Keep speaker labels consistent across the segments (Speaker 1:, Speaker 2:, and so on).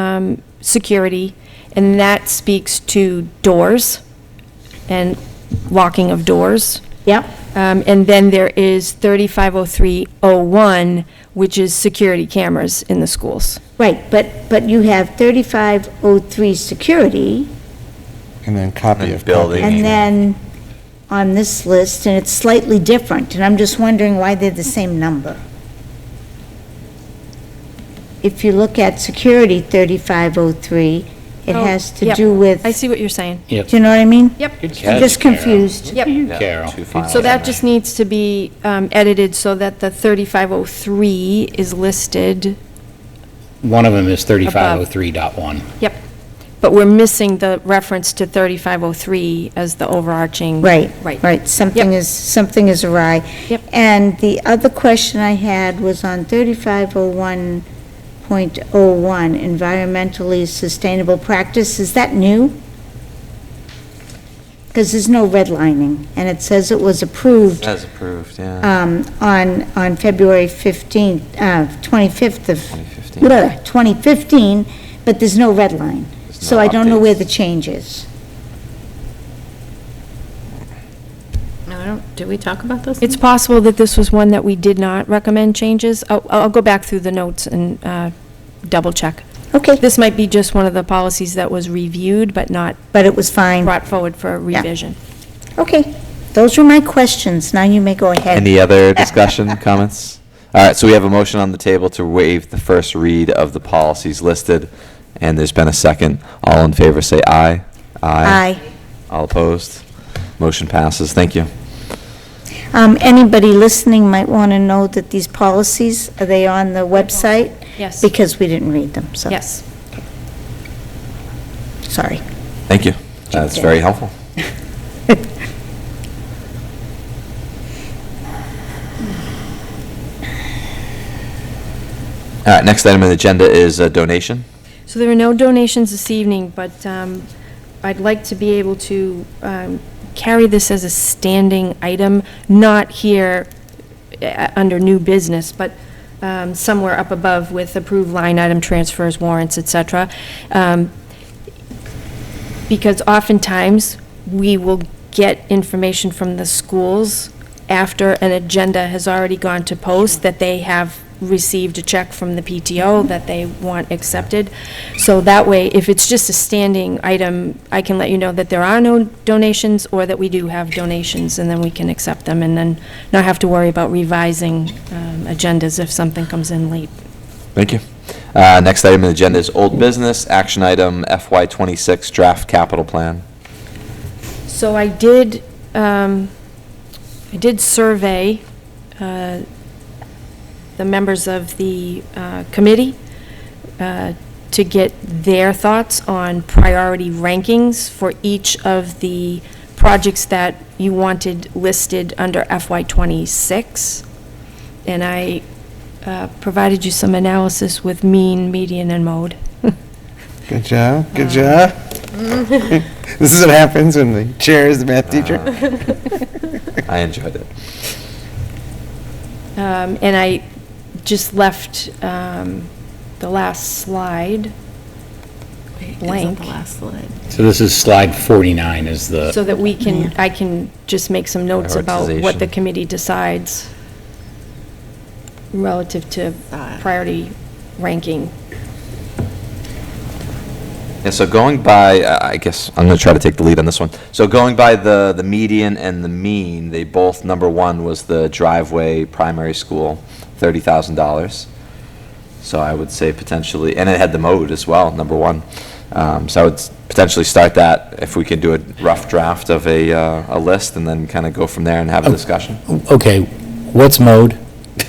Speaker 1: um, security, and that speaks to doors and locking of doors.
Speaker 2: Yep.
Speaker 1: Um, And then there is 350301, which is security cameras in the schools.
Speaker 2: Right, but, but you have 3503 security,
Speaker 3: And then copy
Speaker 4: And
Speaker 3: of.
Speaker 4: building.
Speaker 3: copy.
Speaker 2: and then on this list, and it's slightly different, and I'm just wondering why they're the same number. If you look at security 3503, it
Speaker 1: Oh,
Speaker 2: has to
Speaker 1: yep.
Speaker 2: do with,
Speaker 1: I
Speaker 2: do
Speaker 1: see what you're saying.
Speaker 2: you know what I mean?
Speaker 1: Yep.
Speaker 5: Good
Speaker 2: I'm
Speaker 5: catch,
Speaker 2: just
Speaker 5: Carol.
Speaker 2: confused.
Speaker 1: Yep.
Speaker 5: You,
Speaker 4: Yeah,
Speaker 5: Carol.
Speaker 4: two files.
Speaker 1: So that just needs to be um, edited so that the 3503 is listed.
Speaker 5: One of them is 3503.1.
Speaker 1: Yep. But we're missing the reference to 3503 as the overarching.
Speaker 2: Right,
Speaker 1: Right.
Speaker 2: right, something
Speaker 1: Yep.
Speaker 2: is, something is awry.
Speaker 1: Yep.
Speaker 2: And the other question I had was on 3501.01, environmentally sustainable practice, is that new? Because there's no redlining, and it says it was approved
Speaker 4: As approved, yeah.
Speaker 2: um, on, on February 15th, uh, 25th of,
Speaker 4: 2015.
Speaker 2: blah, 2015, but there's no red line.
Speaker 4: There's
Speaker 2: So
Speaker 4: no
Speaker 2: I don't know where
Speaker 4: updates.
Speaker 2: the change is.
Speaker 6: No, I don't, did we talk about this?
Speaker 1: It's possible that this was one that we did not recommend changes. I'll, I'll go back through the notes and uh, double check.
Speaker 2: Okay,
Speaker 1: This might be just one of the policies that was reviewed but not
Speaker 2: but it was fine.
Speaker 1: brought forward for revision.
Speaker 2: Okay, those were my questions, now you may go ahead.
Speaker 4: Any other discussion, comments? All right, so we have a motion on the table to waive the first read of the policies listed, and there's been a second. All in favor, say aye.
Speaker 2: Aye.
Speaker 4: All opposed? Motion passes. Thank you.
Speaker 2: Um, Anybody listening might want to know that these policies, are they on the website?
Speaker 1: Yes.
Speaker 2: Because we didn't read them, so.
Speaker 1: Yes.
Speaker 2: Sorry.
Speaker 4: Thank you. That's
Speaker 2: in.
Speaker 4: very helpful. All right, next item on the agenda is a donation.
Speaker 1: So there are no donations this evening, but um, I'd like to be able to um, carry this as a standing item, not here uh, under new business, but um, somewhere up above with approved line item transfers, warrants, et cetera. Um, Because oftentimes, we will get information from the schools after an agenda has already gone to post, that they have received a check from the PTO that they want accepted. So that way, if it's just a standing item, I can let you know that there are no donations, or that we do have donations, and then we can accept them, and then not have to worry about revising um, agendas if something comes in late.
Speaker 4: Thank you. Uh, Next item on the agenda is old business, action item FY twenty-six draft capital plan.
Speaker 1: So I did, um, I did survey uh, the members of the uh, committee uh, to get their thoughts on priority rankings for each of the projects that you wanted listed under FY '26. And I uh, provided you some analysis with mean, median, and mode.
Speaker 3: Good job, good job. This is what happens when the chair is the math teacher.
Speaker 4: I enjoyed it.
Speaker 1: Um, And I just left um, the last slide, blank.
Speaker 6: the last slide.
Speaker 5: So this is slide 49 is the.
Speaker 1: so that we can, I can just make some notes about what the
Speaker 4: Prioritization.
Speaker 1: committee decides relative to priority ranking.
Speaker 4: Yeah, so going by, uh, I I guess, I'm going to try to take the lead on this one. So going by the, the median and the mean, they both, number one was the driveway primary school, $30,000. So I would say potentially, and it had the mode as well, number one. Um, So I would s- potentially start that, if we can do a rough draft of a, uh, a list, and then kind of go from there and have a discussion.
Speaker 5: Okay, what's mode?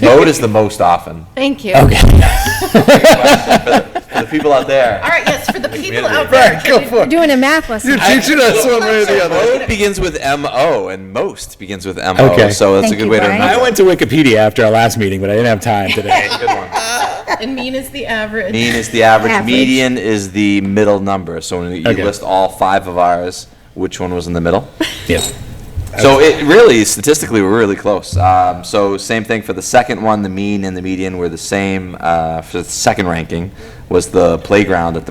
Speaker 4: Mode is the most often.
Speaker 6: Thank
Speaker 1: Oh.
Speaker 6: you.
Speaker 5: Okay.
Speaker 4: The people out there.
Speaker 6: All right, yes, for the people out there.
Speaker 3: Go for it.
Speaker 1: Doing a math lesson.
Speaker 3: You're teaching us one way or the other.
Speaker 4: Mode begins with M-O, and most begins with M-O.
Speaker 5: Okay.
Speaker 4: So that's a
Speaker 2: Thank
Speaker 4: good
Speaker 2: you,
Speaker 4: way to
Speaker 2: Brian.
Speaker 4: remember.
Speaker 5: I went to Wikipedia after our last meeting, but I didn't have time today.
Speaker 4: Good one.
Speaker 6: And mean is the average.
Speaker 4: Mean is the average.
Speaker 2: Average.
Speaker 4: Median is the middle number. So when you
Speaker 5: Okay.
Speaker 4: list all five of ours, which one was in the middle?
Speaker 5: Yeah.
Speaker 4: So it really, statistically, we're really close. Um, so same thing for the second one. The mean and the median were the same. Uh, for the second ranking was the playground at the